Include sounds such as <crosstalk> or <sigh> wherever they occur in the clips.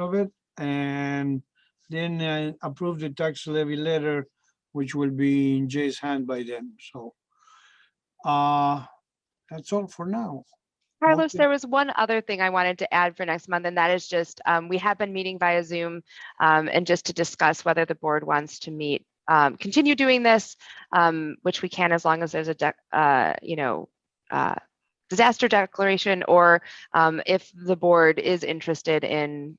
of it and then uh, approve the tax levy letter, which will be in Jay's hand by then, so. Uh, that's all for now. Carlos, Okay. there was one other thing I wanted to add for next month, and that is just, um, we have been meeting via Zoom, um, and just to discuss whether the board wants to meet, um, continue doing this, um, which we can as long as there's a, dec- uh, you know, uh, disaster declaration, or, um, if the board is interested in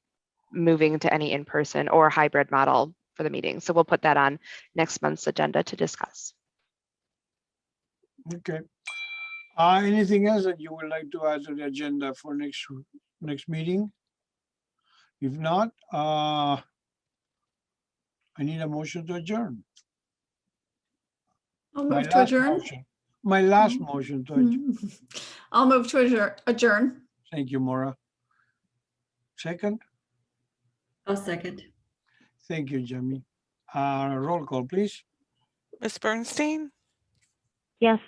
moving to any in-person or hybrid model for the meeting. So we'll put that on next month's agenda to discuss. Okay. Uh, anything else that you would like to add to the agenda for next, next meeting? If not, uh, I need a motion to adjourn. I'll My move to last adjourn. motion- My last Mhm. motion to adjourn. Mm. <laughs> I'll move to adjourn, adjourn. Thank you, Maura. Second? I'll second. Thank you, Jamie. Uh, roll call, please. Miss Bernstein, Yes.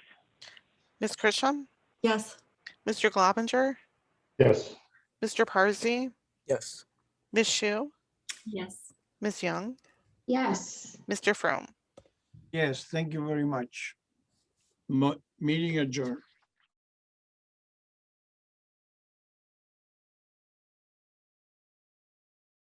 Miss Christian, Yes. Mr. Globinger, Yes. Mr. Parsi, Yes. Miss Shu, Yes. Miss Young, Yes. Mr. Frome. Yes, thank you very much. Mo- meeting adjourned.